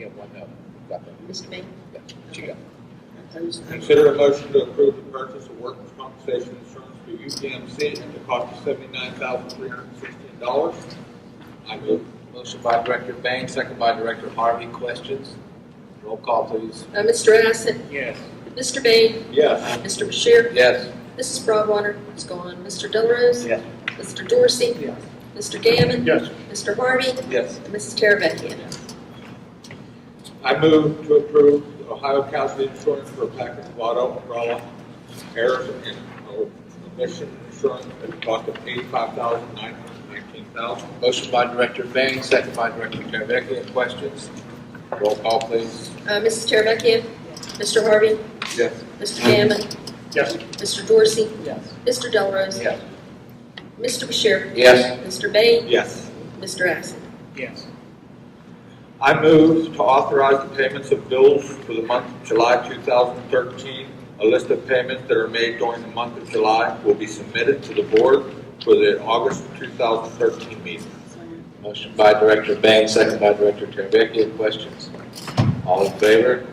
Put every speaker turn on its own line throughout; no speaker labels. and one no. Got that?
Mr. Bailey?
Yeah, What you got?
Opposed?
Consider a motion to approve the purchase of workers' compensation insurance for UPMC at the cost of seventy-nine thousand three hundred and sixteen dollars. I move.
Motion by Director Bang, second by Director Harvey. Questions? Roll call, please.
Uh, Mr. Assett?
Yes.
Mr. Bailey?
Yes.
Mr. Bashir?
Yes.
Mrs. Broadwater is gone. Mr. Delarose?
Yes.
Mr. Dorsey?
Yes.
Mr. Gammon?
Yes.
Mr. Harvey?
Yes.
and Mrs. Teravecchia?
I move to approve the Ohio Casualty Insurance for a package of auto umbrella errors and omission insurance at the cost of eighty-five thousand nine hundred and nineteen thousand.
Motion by Director Bang, second by Director Teravicki. Questions? Roll call, please.
Uh, Mrs. Teravecchia? Mr. Harvey?
Yes.
Mr. Gammon?
Yes.
Mr. Dorsey?
Yes.
Mr. Delarose?
Yes.
Mr. Bashir?
Yes.
Mr. Bailey?
Yes.
Mr. Assett?
Yes.
I move to authorize the payments of bills for the month of July 2013. A list of payments that are made during the month of July will be submitted to the board for the August 2013 meeting.
Motion by Director Bang, second by Director Teravicki. Questions? All in favor?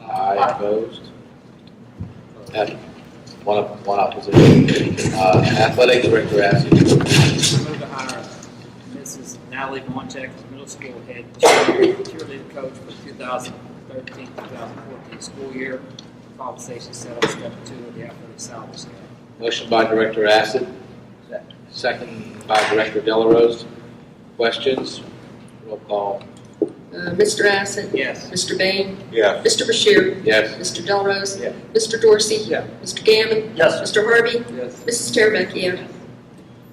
Aye. Opposed? At- One, op- one opposition. Uh, Athletic Director Assett.
Move to hire Mrs. Natalie Montek as middle school head cheerleader cheerleader coach for 2013-2014 school year. Compensation set on step two of the athletic salary scale.
Motion by Director Acid. Second by Director Delarose. Questions? Roll call.
Uh, Mr. Assett?
Yes.
Mr. Bailey?
Yes.
Mr. Bashir?
Yes.
Mr. Delarose?
Yes.
Mr. Dorsey?
Yes.
Mr. Gammon?
Yes.
Mr. Harvey?
Yes.
Mrs. Teravicki?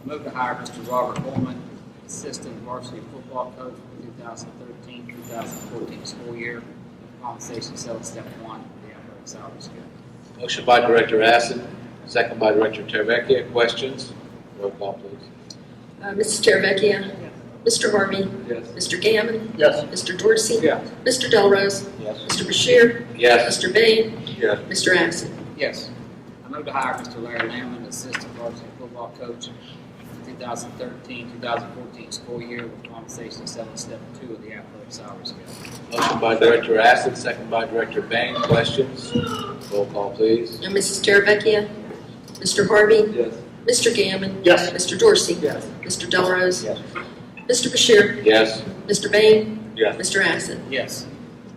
Move to hire Mr. Robert Holman, assistant varsity football coach for 2013-2014 school year. Compensation set on step one of the athletic salary scale.
Motion by Director Acid. Second by Director Teravicki. Questions? Roll call, please.
Uh, Mrs. Teravicki? Mr. Harvey?
Yes.
Mr. Gammon?
Yes.
Mr. Dorsey?
Yes.
Mr. Delarose?
Yes.
Mr. Bashir?
Yes.
Mr. Bain?
Yes.
Mr. Assett?
Yes. I move to hire Mr. Larry Lamlin, assistant varsity football coach for 2013-2014 school year with compensation set on step two of the athletic salary scale.
Motion by Director Acid. Second by Director Bang. Questions? Roll call, please.
And Mrs. Teravicki? Mr. Harvey?
Yes.
Mr. Gammon?
Yes.
Mr. Dorsey?
Yes.
Mr. Delarose?
Yes.
Mr. Bashir?
Yes.
Mr. Bain?
Yes.
Mr. Assett?
Yes.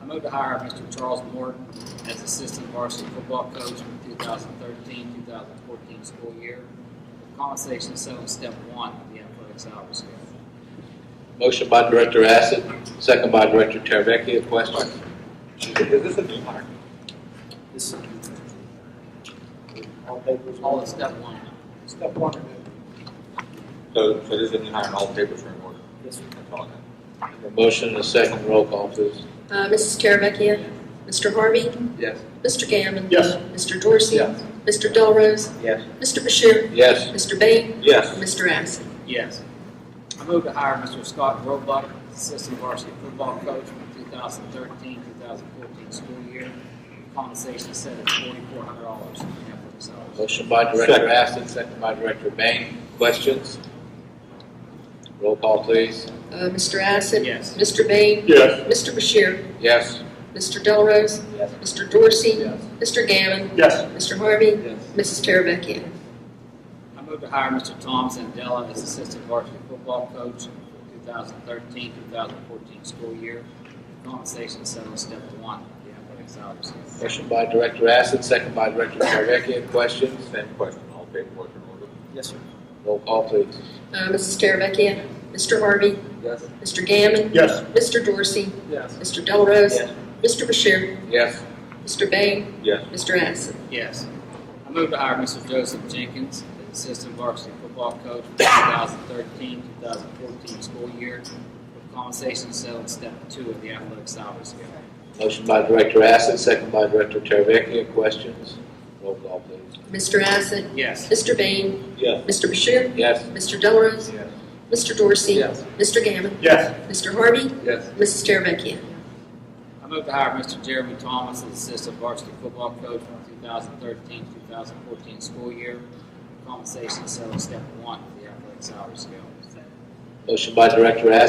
I move to hire Mr. Charles Morton as assistant varsity football coach for 2013-2014 school year with compensation set on step one of the athletic salary scale.
Motion by Director Acid. Second by Director Teravicki. Questions?
Is this a new hire?
This is
All papers.
all of step one.
Step one.
So, so this is a new hire and all the papers are in order.
Yes.
That's all I got.
Motion and a second. Roll call, please.
Uh, Mrs. Teravicki? Mr. Harvey?
Yes.
Mr. Gammon?
Yes.
Mr. Dorsey?
Yes.
Mr. Delarose?
Yes.
Mr. Bashir?
Yes.
Mr. Bain?
Yes.
Mr. Assett?
Yes. I move to hire Mr. Scott Roebuck, assistant varsity football coach for 2013-2014 school year. Compensation set at $4,400 in the athletic salary.
Motion by Director
Second.
Acid, second by Director Bang. Questions? Roll call, please.
Uh, Mr. Assett?
Yes.
Mr. Bain?
Yes.
Mr. Bashir?
Yes.
Mr. Delarose?
Yes.
Mr. Dorsey?
Yes.
Mr. Gammon?
Yes.
Mr. Harvey?
Yes.
Mrs. Teravicki?
I move to hire Mr. Tom Sandella as assistant varsity football coach for 2013-2014 school year. Compensation set on step one of the athletic salary. scale.
Motion by Director Acid, second by Director Teravicki. Questions?
Same question, all paperwork in order.
Yes, sir.
Roll call, please.
Uh, Mrs. Teravicki? Mr. Harvey?
Yes.
Mr. Gammon?
Yes.
Mr. Dorsey?
Yes.
Mr. Delarose?
Yes.
Mr. Bashir?
Yes.
Mr. Bain?
Yes.
Mr. Assett?
Yes. I move to hire Mr. Joseph Jenkins as assistant varsity football coach for 2013-2014 school year with compensation set on step two of the athletic salary scale.
Motion by Director Acid, second by Director Teravicki. Questions? Roll call, please.
Mr. Assett?
Yes.
Mr. Bain?
Yes.
Mr. Bashir?
Yes.
Mr. Delarose?
Yes.
Mr. Dorsey?
Yes.
Mr. Gammon?
Yes.
Mr. Harvey?
Yes.
Mrs. Teravicki?
I move to hire Mr. Jeremy Thomas as assistant varsity football coach for 2013-2014 school year with compensation set on step one of the athletic salary scale.
Motion by Director Acid,